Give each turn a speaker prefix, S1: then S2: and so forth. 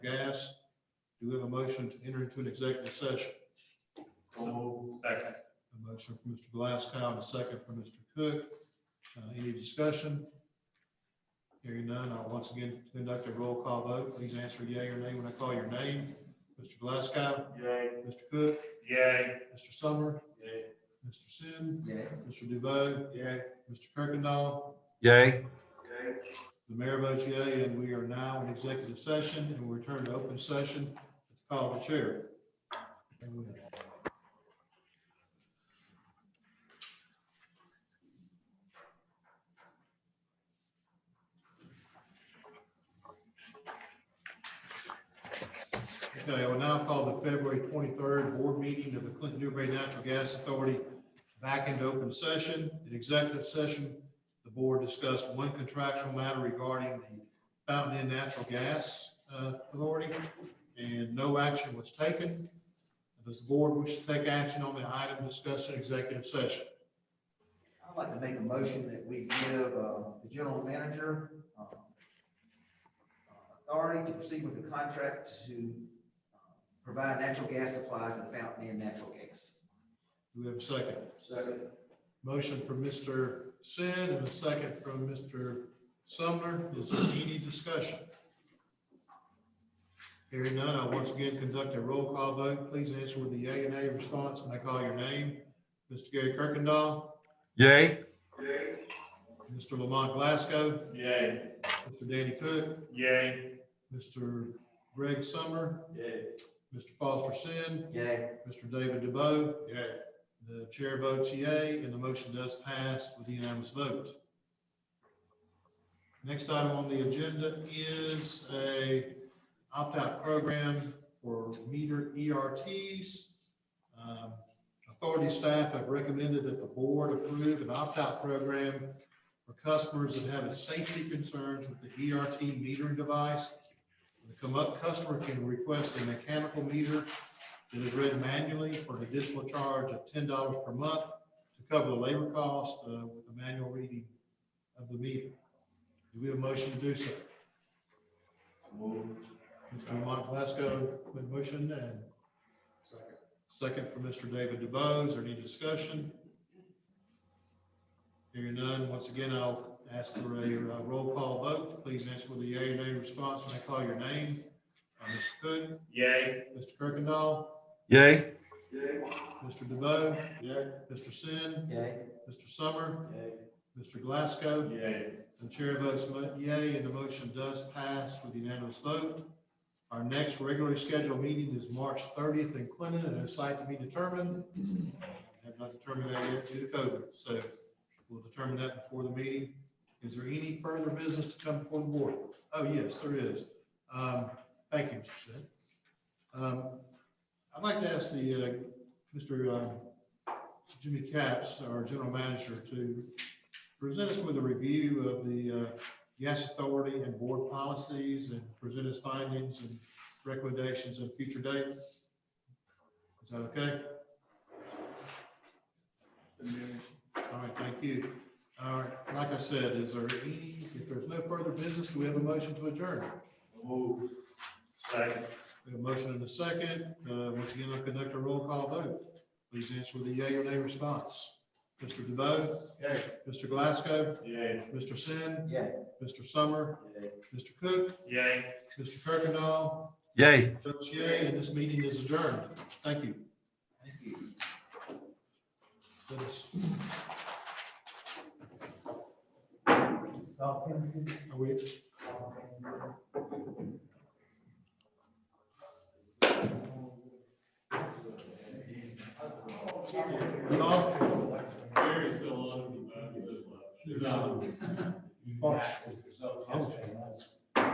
S1: gas. Do we have a motion to enter into an executive session?
S2: Second.
S1: A motion from Mr. Glasgow and a second from Mr. Cook. Uh, Any discussion? Hearing none, I'll once again conduct a roll call vote. Please answer yea or nay when I call your name. Mr. Glasgow,
S2: Yay.
S1: Mr. Cook,
S2: Yay.
S1: Mr. Summer,
S2: Yay.
S1: Mr. Sin,
S3: Yay.
S1: Mr. DeVoe. Yay. Mr. Kirkendall,
S4: Yay.
S2: Yay.
S1: the mayor votes yea, and we are now in executive session and we return to open session at the call of the chair. And we- Okay, I will now call the February twenty-third board meeting of the Clinton Newbury Natural Gas Authority back into open session. In executive session, the board discussed one contractual matter regarding the Fountain Inn Natural Gas uh, Authority, and no action was taken. Does the board wish to take action on the item discussed in executive session?
S3: I'd like to make a motion that we give uh, the general manager um, uh, authority to proceed with the contract to uh, provide natural gas supply to the Fountain Inn Natural Gas.
S1: Do we have a second?
S3: Second.
S1: Motion from Mr. Sin and a second from Mr. Sumner. Is there any discussion? Hearing none, I once again conduct a roll call vote. Please answer with a yea and nay response when I call your name. Mr. Gary Kirkendall,
S4: Yay.
S1: Mr. Lamont Glasgow,
S2: Yay.
S1: Mr. Danny Cook,
S2: Yay.
S1: Mr. Greg Summer,
S2: Yay.
S1: Mr. Foster Sin,
S3: Yay.
S1: Mr. David DeBoe. The chair votes yea, and the motion does pass with a unanimous vote. Next item on the agenda is a opt-out program for meter ERTs. Um, Authority staff have recommended that the board approve an opt-out program for customers that have a safety concerns with the ERT metering device. The cum- customer can request a mechanical meter that is read manually for an additional charge of ten dollars per month to cover the labor cost uh, with the manual reading of the meter. Do we have a motion to do so? Mr. Lamont Glasgow with motion and second from Mr. David DeBose. Is there any discussion? Hearing none, once again, I'll ask for a uh, roll call vote. Please answer with a yea or nay response when I call your name. Uh, Mr. Cook,
S2: Yay.
S1: Mr. Kirkendall,
S4: Yay.
S1: Mr. DeVoe. Mr. Sin,
S3: Yay.
S1: Mr. Summer, Mr. Glasgow,
S2: Yay.
S1: the chair votes mo- yea, and the motion does pass with unanimous vote. Our next regularly scheduled meeting is March thirtieth in Clinton, at a site to be determined. Have not determined that yet due to COVID, so we'll determine that before the meeting. Is there any further business to come before the board? Oh, yes, there is. Um, thank you, Mr. Sin. Um, I'd like to ask the, uh, Mr. um, Jimmy Capps, our general manager, to present us with a review of the uh, gas authority and board policies and present his findings and recommendations at a future date. Is that okay? All right, thank you. All right, like I said, is there any, if there's no further business, do we have a motion to adjourn?
S2: Move. Second.
S1: We have a motion and a second. Uh, Once again, I'll conduct a roll call vote. Please answer with a yea or nay response. Mr. DeVoe,
S2: Yay.
S1: Mr. Glasgow,
S2: Yay.
S1: Mr. Sin,
S3: Yay.
S1: Mr. Summer, Mr. Cook,
S2: Yay.
S1: Mr. Kirkendall,
S4: Yay.
S1: Judge Yea, and this meeting is adjourned. Thank you.
S3: Thank you.
S1: That is- Are we? We all-
S2: Gary's still on.
S1: Oh,